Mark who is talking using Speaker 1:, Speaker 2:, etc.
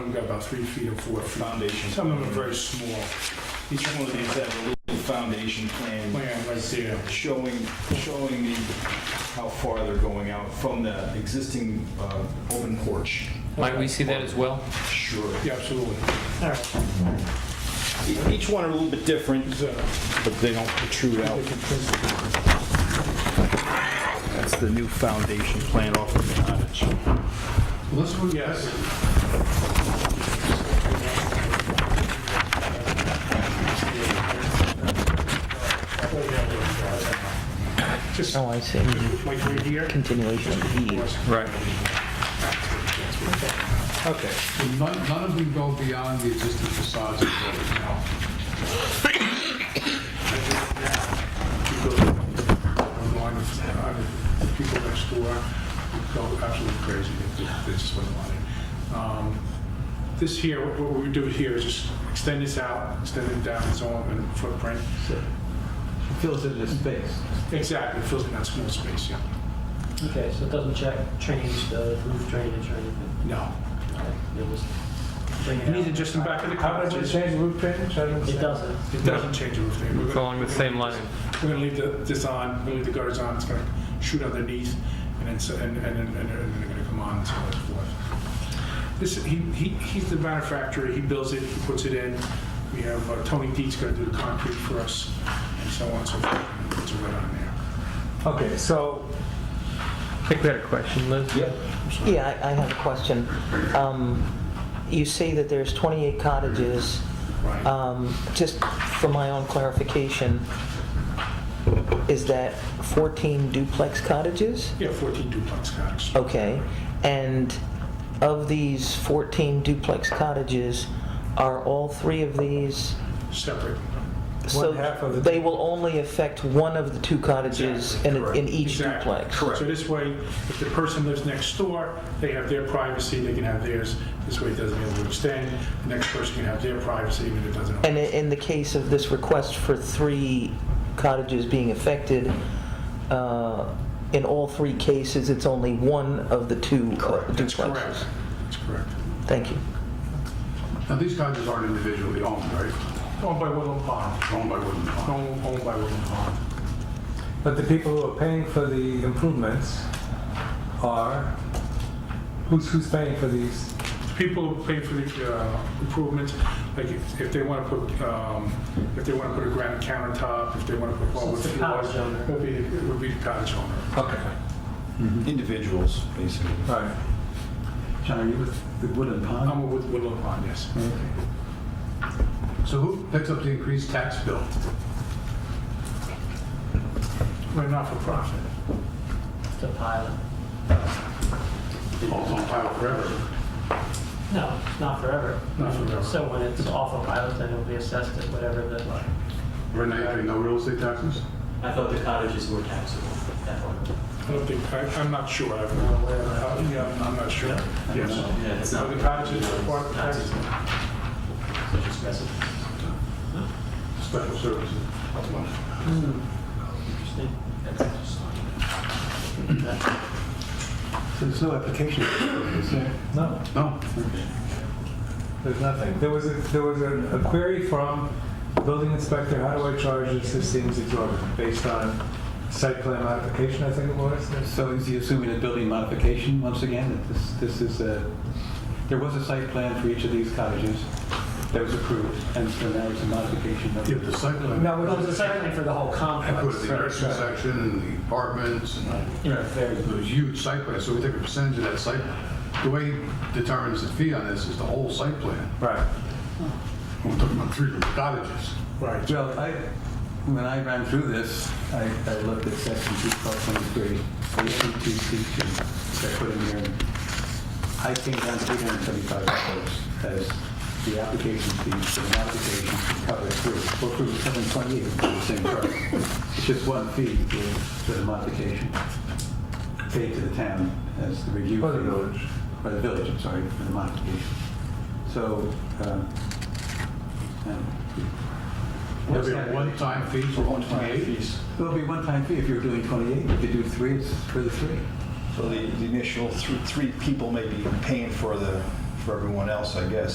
Speaker 1: got about three feet or four feet.
Speaker 2: Foundation.
Speaker 1: Some of them are very small.
Speaker 2: Each one of these have a little foundation plan
Speaker 1: Plan right there.
Speaker 2: showing, showing the, how far they're going out from the existing uh, open porch.
Speaker 3: Might we see that as well?
Speaker 2: Sure.
Speaker 1: Yeah, absolutely.
Speaker 4: All right,
Speaker 2: E- Each one are a little bit different,
Speaker 1: It's, uh,
Speaker 2: but they don't protrude out. That's the new foundation plan off of the cottage.
Speaker 5: Let's move,
Speaker 1: Yes. Just
Speaker 4: oh, I see,
Speaker 1: like right here.
Speaker 4: continuation of E.
Speaker 3: Right.
Speaker 2: Okay.
Speaker 5: So none, none of them go beyond the existing facades of the building now.
Speaker 1: Online, uh, People next door would go absolutely crazy if this this went on. Um, This here, what- what we do here is just extend this out, extend it down its own footprint.
Speaker 6: fills in the space.
Speaker 1: Exactly, it fills in that small space, yeah.
Speaker 4: Okay, so it doesn't check, change the roof drainage or anything?
Speaker 1: No.
Speaker 4: It was bringing
Speaker 1: Neither
Speaker 4: out-
Speaker 1: just in back of the
Speaker 6: How does it
Speaker 1: cottage.
Speaker 6: change the roof drainage? I don't
Speaker 4: It doesn't.
Speaker 1: It doesn't change the roof. thing. We're gonna-
Speaker 3: Along the same line.
Speaker 1: We're gonna leave the, this on, we're gonna leave the gutters on, it's gonna shoot underneath, and then, s- and, and, and, and and then they're gonna come on and so on and so forth. This, he, he, he's the manufacturer, he builds it, he puts it in, we have, uh, Tony Deet's gonna do the concrete for us, and so on and so forth, puts it right on there.
Speaker 6: Okay, so,
Speaker 3: I think we had a question, Liz.
Speaker 6: yeah,
Speaker 7: Yeah, I I have a question. Um, You say that there's 28 cottages.
Speaker 1: Right.
Speaker 7: Um, Just for my own clarification, is that 14 duplex cottages?
Speaker 1: Yeah, fourteen duplex cottages.
Speaker 7: Okay. And of these 14 duplex cottages, are all three of these?
Speaker 1: Separate.
Speaker 7: so
Speaker 6: half of the-
Speaker 7: They will only affect one of the two cottages in a- in each
Speaker 1: Exactly.
Speaker 7: duplex?
Speaker 1: So this way, if the person lives next door, they have their privacy, they can have theirs, this way it doesn't overextend, the next person can have their privacy, and it doesn't.
Speaker 7: And i- in the case of this request for three cottages being affected, uh, in all three cases, it's only one of the two uh,
Speaker 1: That's
Speaker 7: duplexes?
Speaker 1: correct. That's correct.
Speaker 7: Thank you.
Speaker 5: Now, these cottages aren't individually owned, right?
Speaker 1: Owned by Woodland Pond.
Speaker 5: Owned by Woodland Pond.
Speaker 1: Owned owned by Woodland Pond.
Speaker 6: but the people who are paying for the improvements are, who's, who's paying for these?
Speaker 1: People who pay for the uh, improvements, like if if they want to put, um, if they want to put a granite countertop, if they want to put
Speaker 4: So
Speaker 1: hardwood
Speaker 4: it's the
Speaker 1: floors.
Speaker 4: cottage owner.
Speaker 1: It would be, it would be the cottage owner.
Speaker 6: Okay,
Speaker 2: Individuals, basically.
Speaker 6: all right.
Speaker 8: John, are you with the Woodland Pond?
Speaker 1: I'm with Woodland Pond, yes.
Speaker 5: So who picks up the increased tax bill?
Speaker 1: We're not for profit.
Speaker 4: It's a pilot.
Speaker 5: Oh, it's on file forever.
Speaker 4: No, not forever.
Speaker 1: Not forever.
Speaker 4: So when it's off a pilot, then it'll be assessed at whatever the, um,
Speaker 5: We're not having no real estate taxes?
Speaker 9: I thought the cottages were taxable at one.
Speaker 1: I don't think, I- I'm not sure. I've- uh, Yeah, I'm- I'm not sure. Yes.
Speaker 9: Yeah, it's
Speaker 1: Are
Speaker 9: not.
Speaker 1: the cottages part of the tax?
Speaker 9: Such as residence.
Speaker 5: Special services.
Speaker 4: interesting.
Speaker 8: So there's no application, is there?
Speaker 6: No,
Speaker 5: No.
Speaker 6: there's nothing. There was, a there was a a query from the building inspector, how do I charge this, this seems exorbitant, based on site plan modification, I think it was.
Speaker 8: So is he assuming a building modification once again? That this, this is a, there was a site plan for each of these cottages that was approved, and so now it's a modification of
Speaker 5: Yeah, the site plan.
Speaker 6: No,
Speaker 4: Well,
Speaker 6: it
Speaker 4: it's
Speaker 6: was
Speaker 4: essentially for the whole
Speaker 5: I put the
Speaker 4: complex.
Speaker 5: nursing section and the apartments and
Speaker 8: Right, very good.
Speaker 5: those huge site plans, so we take a percentage of that site. The way he determines the fee on this is the whole site plan.
Speaker 6: Right.
Speaker 5: We're talking about three cottages.
Speaker 1: Right.
Speaker 8: Well, I, when I ran through this, I, I looked at section two twelve twenty-three, eighteen two C two, that I put in here. I came down to eight hundred seventy-five dollars as the application fee for the modification to cover through, or through seven twenty-eight for the same price. It's just one fee for, for the modification paid to the town as the review.
Speaker 6: For the
Speaker 8: fee.
Speaker 6: village.
Speaker 8: For the village, I'm sorry, for the modification. So, um, um,
Speaker 5: There'll be a one-time fee for
Speaker 8: one time
Speaker 5: 128.
Speaker 8: fees. It'll be one-time fee if you're doing 28. If you do three, it's for the three.
Speaker 2: So the the initial thr- three people may be paying for the, for everyone else, I guess.